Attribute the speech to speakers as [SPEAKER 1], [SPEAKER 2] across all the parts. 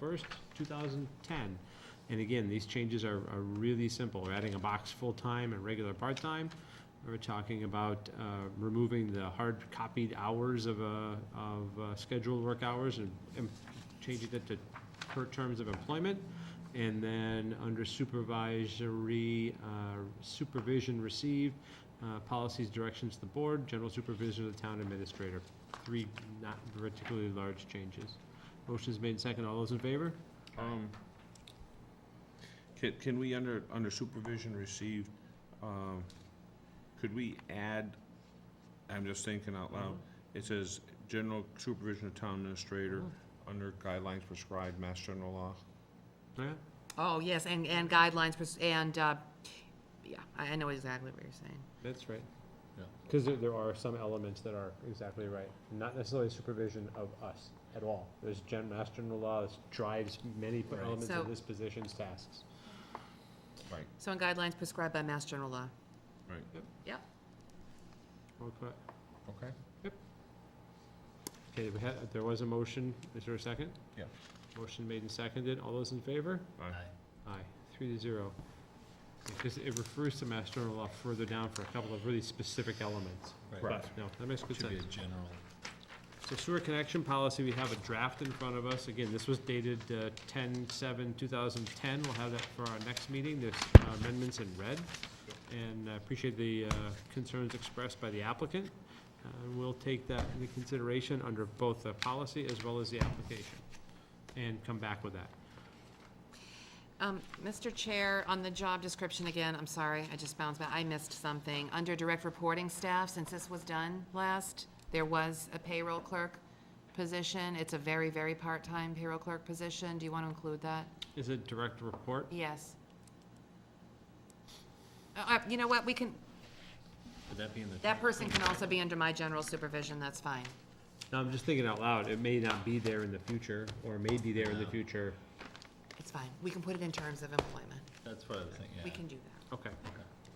[SPEAKER 1] 1st, 2010. And again, these changes are are really simple. We're adding a box full-time and regular part-time. We're talking about uh, removing the hard-copied hours of, uh, of uh, scheduled work hours and and changing that to per terms of employment. And then, under supervisory, uh, supervision received, uh, policies, directions to the board, general supervision of the town administrator. Three not particularly large changes. Motion's made second. All those in favor?
[SPEAKER 2] Um, Can, can we, under, under supervision received, um, could we add, I'm just thinking out loud, it says, general supervision of town administrator, under guidelines prescribed, mass general law.
[SPEAKER 1] Yeah?
[SPEAKER 3] Oh, yes, and, and guidelines, pers- and, uh, yeah, I I know exactly what you're saying.
[SPEAKER 1] That's right.
[SPEAKER 4] Yeah.
[SPEAKER 1] Because there, there are some elements that are exactly right, not necessarily supervision of us at all. There's gen, mass general law that drives many p-
[SPEAKER 4] Right.
[SPEAKER 1] elements of
[SPEAKER 3] So-
[SPEAKER 1] this position's tasks.
[SPEAKER 2] Right.
[SPEAKER 3] So on guidelines prescribed by Mass General Law.
[SPEAKER 2] Right.
[SPEAKER 3] Yep.
[SPEAKER 1] Okay,
[SPEAKER 4] Okay.
[SPEAKER 1] Okay, we had, there was a motion, is there a second?
[SPEAKER 4] Yeah.
[SPEAKER 1] Motion made and seconded, all those in favor?
[SPEAKER 2] Aye.
[SPEAKER 1] Aye, three to zero. Because it refers to mass general law further down for a couple of really specific elements.
[SPEAKER 4] Right.
[SPEAKER 1] But, No, that makes good
[SPEAKER 4] Should be a
[SPEAKER 1] sense.
[SPEAKER 4] general.
[SPEAKER 1] So sewer connection policy, we have a draft in front of us. Again, this was dated uh, 10/7/2010. We'll have that for our next meeting. There's uh, amendments in red. And I appreciate the uh, concerns expressed by the applicant. Uh, We'll take that into consideration under both the policy as well as the application and come back with that.
[SPEAKER 3] Um, Mr. Chair, on the job description again, I'm sorry, I just bounced back, I missed something. Under direct reporting staff, since this was done last, there was a payroll clerk position. It's a very, very part-time payroll clerk position. Do you want to include that?
[SPEAKER 1] Is it direct report?
[SPEAKER 3] Yes. Uh, Uh, you know what, we can,
[SPEAKER 4] Would that be in the?
[SPEAKER 3] that person can also be under my general supervision, that's fine.
[SPEAKER 1] No, I'm just thinking out loud. It may not be there in the future or may be there in the
[SPEAKER 4] No.
[SPEAKER 1] future.
[SPEAKER 3] It's fine. We can put it in terms of employment.
[SPEAKER 4] That's what I was thinking,
[SPEAKER 3] We
[SPEAKER 4] yeah.
[SPEAKER 3] can do that.
[SPEAKER 1] Okay.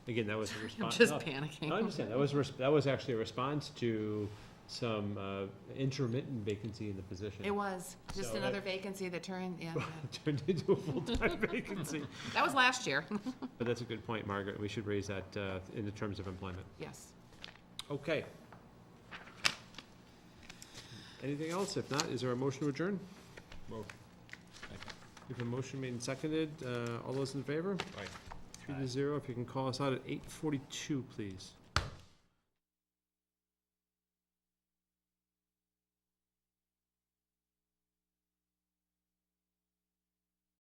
[SPEAKER 1] Again, that was a
[SPEAKER 3] I'm
[SPEAKER 1] response.
[SPEAKER 3] just
[SPEAKER 1] no. I
[SPEAKER 3] panicking.
[SPEAKER 1] understand, that was, res- that was actually a response to some uh, intermittent vacancy in the position.
[SPEAKER 3] It was, just
[SPEAKER 1] So uh,
[SPEAKER 3] another
[SPEAKER 1] that-
[SPEAKER 3] vacancy that turned, yeah.
[SPEAKER 1] Turned into a full-time vacancy.
[SPEAKER 3] That was last year,
[SPEAKER 1] But that's a good point, Margaret, we should raise that uh, in the terms of employment.
[SPEAKER 3] yes.
[SPEAKER 1] Okay. Anything else? If not, is there a motion to adjourn?
[SPEAKER 2] Motion.
[SPEAKER 1] If a motion made and seconded, uh, all those in favor?
[SPEAKER 2] Aye.
[SPEAKER 1] Three to zero, if you can call us out at eight forty-two, please.